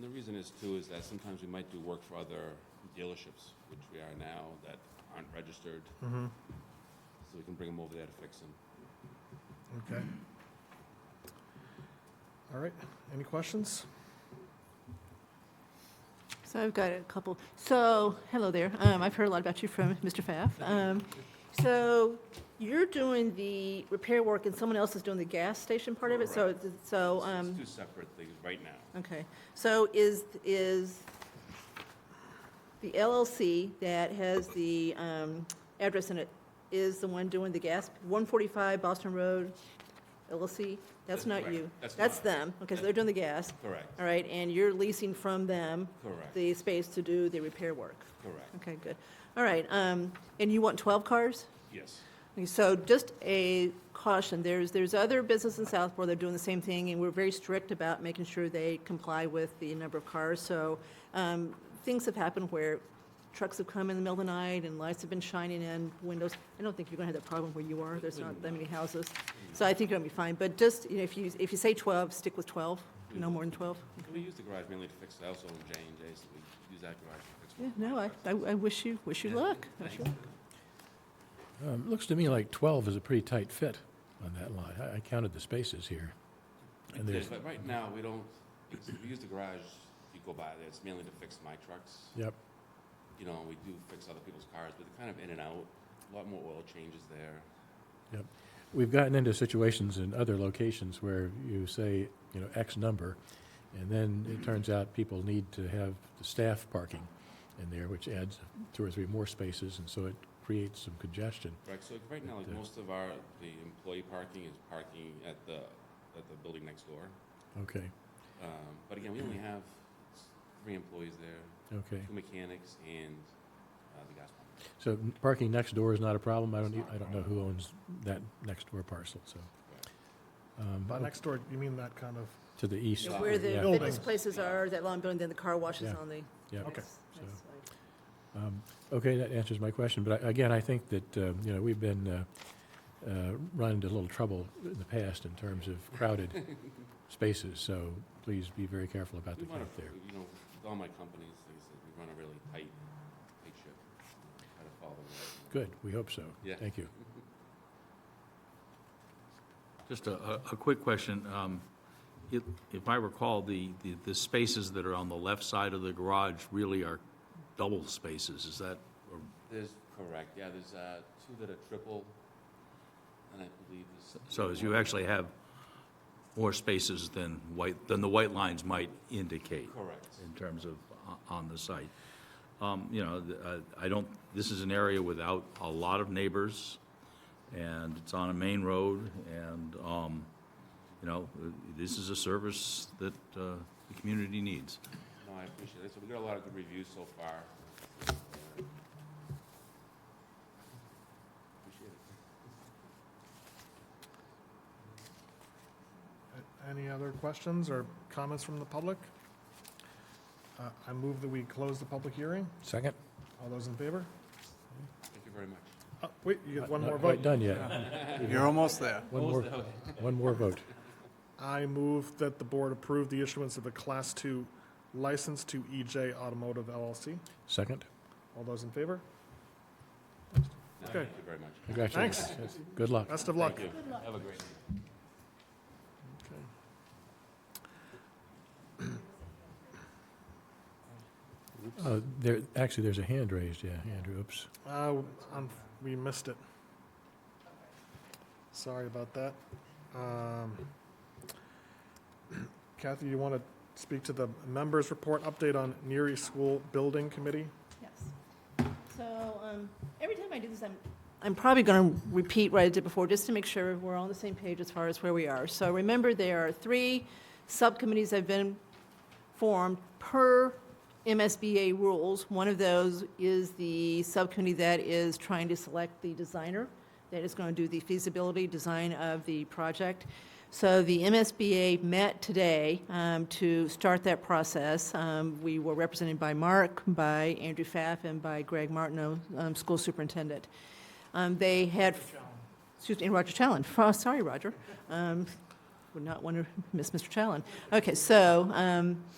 the reason is too, is that sometimes we might do work for other dealerships, which we are now, that aren't registered, Mm-hmm, so we can bring them over there to fix them. okay. All right, any questions? So I've got a couple. So, hello there. Um, I've heard a lot about you from Mr. Pfaff. Um, so you're doing the repair work and someone else is doing the gas station part of it? So, it's- so, It's- um, It's two separate things right now. okay. So is, is the LLC that has the, um, address in it is the one doing the gas, 145 Boston Road LLC? That's That's not correct. you. That's That's not- them. Okay, so they're doing the gas. Correct, All right, and you're leasing from them? correct, uh, the space to do the repair work. correct, Okay, good. All right, um, and you want 12 cars? yes. Okay, So just a caution, there's, there's other businesses in Southport that are doing the same thing, and we're very strict about making sure they comply with the number of cars. So um, things have happened where trucks have come in the middle of the night and lights have been shining in windows. I don't think you're going to have that problem where you are, there's not that many houses. So I think you're going to be fine, but just, you know, if you, if you say 12, stick with 12, no more than 12. We use the garage mainly to fix the household and J and J, so we use that garage to fix. Yeah, no, I, I I wish you, wish you luck. Wish you luck. Um, Looks to me like 12 is a pretty tight fit on that lot. I- I counted the spaces here. And Yeah, there's, But right now, we don't, it's- we use the garage, you go by there, it's mainly to fix my trucks. yep, You know, we do fix other people's cars, but they're kind of in and out, a lot more oil changes there. we've gotten into situations in other locations where you say, you know, X number, and then it turns out people need to have the staff parking in there, which adds two or three more spaces, and so it creates some congestion. Right, so like, right now, like, Okay. most of our, the employee parking is parking at the, at the building next door. Okay, Um, But again, we only have three employees there, okay. two mechanics and uh, the gas pump. So n- parking next door is not a problem? I don't, e- I don't know who owns that next door parcel, so. um, By next door, you mean that kind of, To the east. Yeah, Where yeah. the Building. fitness places are, that long building, then the car wash is Yeah. on the. Yeah. Okay. That's- So- that's like- Um, Okay, that answers my question, but I- again, I think that, uh, you know, we've been uh, uh, run into a little trouble in the past in terms of crowded spaces, so please be very careful about We the run count a, there. you know, with all my companies, like I said, we run a really tight, tight ship. Try to follow the rules. Good, we hope so. Yeah. Thank you. Just a, a a quick question. Um, If if I recall, the, the- the spaces that are on the left side of the garage really are double spaces, is that, or- There's, correct, yeah, there's uh, two that are triple, and I believe there's. so as you actually have more spaces than white, than the white lines might indicate? Correct. in terms of o- on the site. Um, You know, th- uh, I don't, this is an area without a lot of neighbors, and it's on a main road, and, um, you know, uh, this is a service that uh, the community needs. No, I appreciate it. So we got a lot of good reviews so far. Appreciate it. any other questions or comments from the public? Uh, I move that we close the public hearing. Second? All those in favor? Thank you very much. Oh, Wait, you get one Uh, Not more quite vote. done yet. You're almost there. One more, one more vote. I move that the board approve the issuance of a Class Two license to EJ Automotive LLC. Second? All those in favor? No, Okay. Thank you very much. Congratulations. Yes, Good luck. Best of luck. Thank you. Have a great day. Uh, There, actually, there's a hand raised, yeah, Andrew, oops. Uh, um, we missed it. Sorry about that. Um, Kathy, you want to speak to the members' report update on Neary School Building Committee? Yes. So, um, every time I do this, I'm. I'm probably going to repeat what I did before, just to make sure we're on the same page as far as where we are. So remember, there are three subcommittees that have been formed per MSBA rules. One of those is the subcommittee that is trying to select the designer that is going to do the feasibility design of the project. So the MSBA met today um, to start that process. Um, We were represented by Mark, by Andrew Pfaff, and by Greg Martineau, um, school superintendent. Um, They had, excuse me, and Roger Challen, Oh, sorry, Roger. Um, Would not want to miss Mr. Challen. Okay, so um,